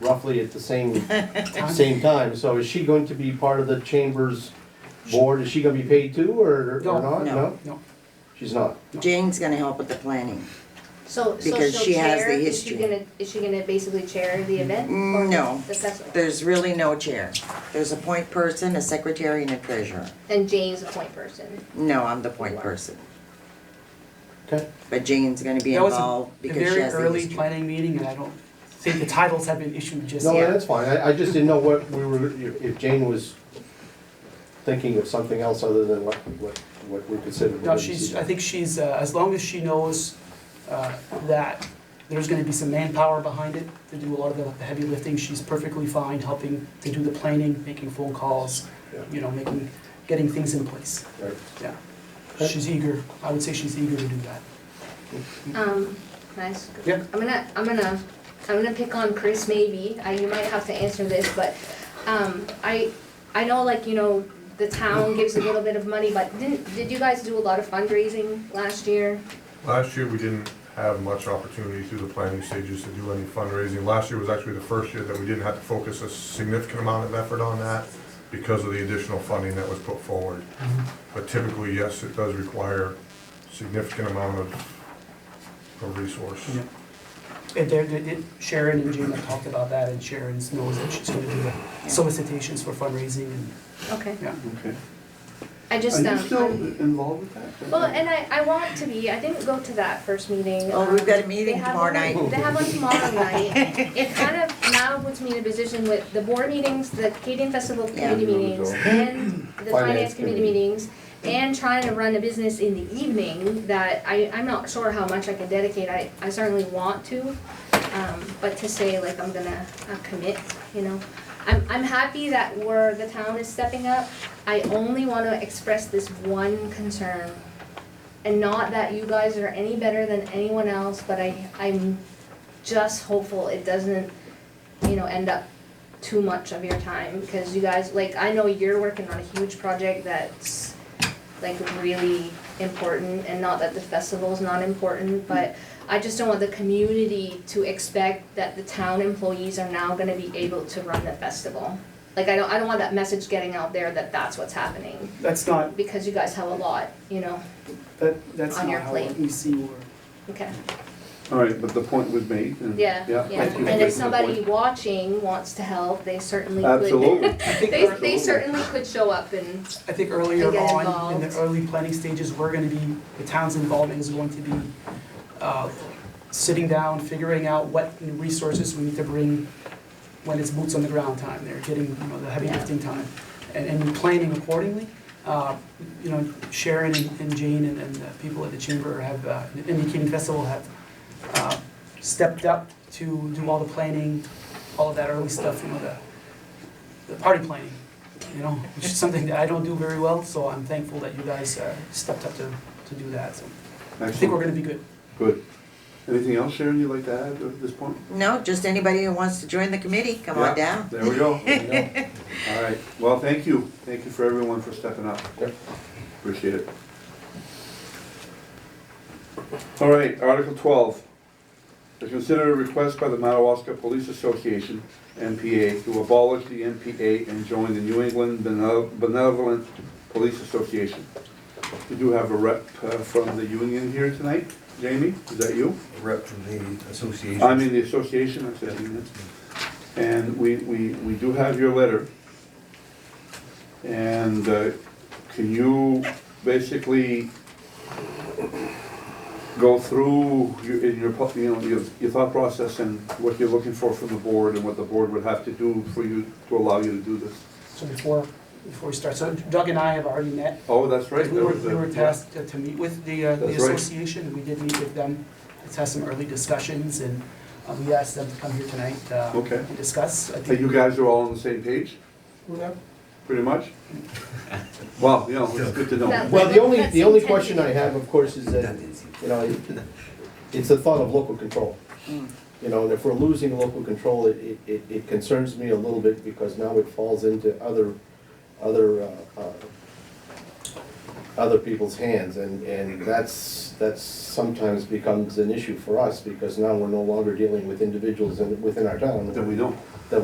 roughly at the same, same time. So is she going to be part of the chamber's board? Is she gonna be paid too, or, or not? No, no, She's not. Jane's gonna help with the planning. So, so Because she'll she has chair, the is she history. gonna, is she gonna basically chair the event? Mm, or no. The festival? There's really no chair. There's a point person, a secretary, and a treasurer. And Jane's a point person. No, I'm the point person, Okay. but Jane's gonna be That was a- involved a because she very has the early history. planning meeting, and I don't think the titles have been issued just No, yet. that's fine. I, I just didn't know what we were, if Jane was thinking of something else other than what, what, what we considered. No, she's, I think she's, uh, as long as she knows uh, that there's gonna be some manpower behind it to do a lot of the the heavy lifting, she's perfectly fine helping to do the planning, making phone calls, Yeah. you know, making, getting things in place, Right. yeah. Okay. She's eager, I would say she's eager to do that. Um, nice. Yeah. I'm gonna, I'm gonna, I'm gonna pick on Chris maybe, I, you might have to answer this, but, um, I, I know like, you know, the town gives a little bit of money, but didn't, did you guys do a lot of fundraising last year? Last year, we didn't have much opportunity through the planning stages to do any fundraising. Last year was actually the first year that we didn't have to focus a significant amount of effort on that because of the additional funding that was put forward. But typically, yes, it does require significant amount of, of resource. Yeah. And there, they did- Sharon and Jim have talked about that, and Sharon knows that she's gonna do the solicitations for fundraising and, Okay, yeah. Okay. I just, Are um. you still I'm- involved with that? Well, and I, I want to be, I didn't go to that first meeting. Oh, we've got a Um, meeting they have tomorrow one- night. They have one tomorrow night. It kind of now puts me in a position with the board meetings, the Acadian Festival Yeah. committee meetings, and Finance the finance committee committee. meetings, and trying to run a business in the evening that I, I'm not sure how much I can dedicate, I, I certainly want to. Um, but to say like I'm gonna uh, commit, you know, I'm, I'm happy that we're, the town is stepping up. I only wanna express this one concern and not that you guys are any better than anyone else, but I, I'm just hopeful it doesn't, you know, end up too much of your time, because you guys, like, I know you're working on a huge project that's, like, really important, and not that the festival's not important, but I just don't want the community to expect that the town employees are now gonna be able to run the festival. Like, I don't, I don't want that message getting out there that that's what's happening, That's not, because you guys have a lot, you know, that, that's On not your how plate. we see or. okay. All right, but the point was made and. Yeah, yeah. thank you for And if making the somebody point. watching wants to help, they certainly could. Absolutely. I think They, ear- they certainly could show up and, I think earlier They get on, in involved. the early planning stages, we're gonna be, the town's involvement is going to be uh, sitting down, figuring out what new resources we need to bring when it's boots on the ground time, they're getting, you know, the heavy Yeah. lifting time, and, and planning accordingly. Uh, You know, Sharon and and Jane and, and the people at the chamber have, uh, and the Keating Festival have uh, stepped up to do all the planning, all of that early stuff, you know, the, the party planning, you know, which is something that I don't do very well, so I'm thankful that you guys uh, stepped up to, to do that, so I think we're Excellent, gonna be good. good. Anything else, Sharon, you'd like to add at this point? No, just anybody who wants to join the committee, come on Yeah, down. There we go. All right, well, thank you. Thank you for everyone for stepping up. Yep. Appreciate it. All right, Article twelve. To consider a request by the Madawaska Police Association, MPA, to abolish the MPA and join the New England Bene- Benevolent Police Association. We do have a rep uh, from the union here tonight. Jamie, is that you? rep from the association. I'm in the association, I said, union. And we, we, we do have your letter. And uh, can you basically go through your, in your, pu- you know, your, your thought process and what you're looking for from the board and what the board would have to do for you, to allow you to do this? So before, before we start, so Doug and I have already met. Oh, that's right. We that were, was we the- were tasked to to meet with the, uh, the That's right. association, and we did meet with them. Let's have some early discussions, and uh, we asked them to come here tonight uh, Okay. and discuss. I Hey, you think guys are all on the same page, pretty much? Well, you know, it's good to know. That- Well, the only, That's the only intended. question I have, of course, is that, you know, it- it's the thought of local control. Mm. You know, and if we're losing local control, it- it, it, it concerns me a little bit because now it falls into other, other, uh, uh, other people's hands and, and that's, that's sometimes becomes an issue for us because now we're no longer dealing with individuals in, within our town. Then we don't.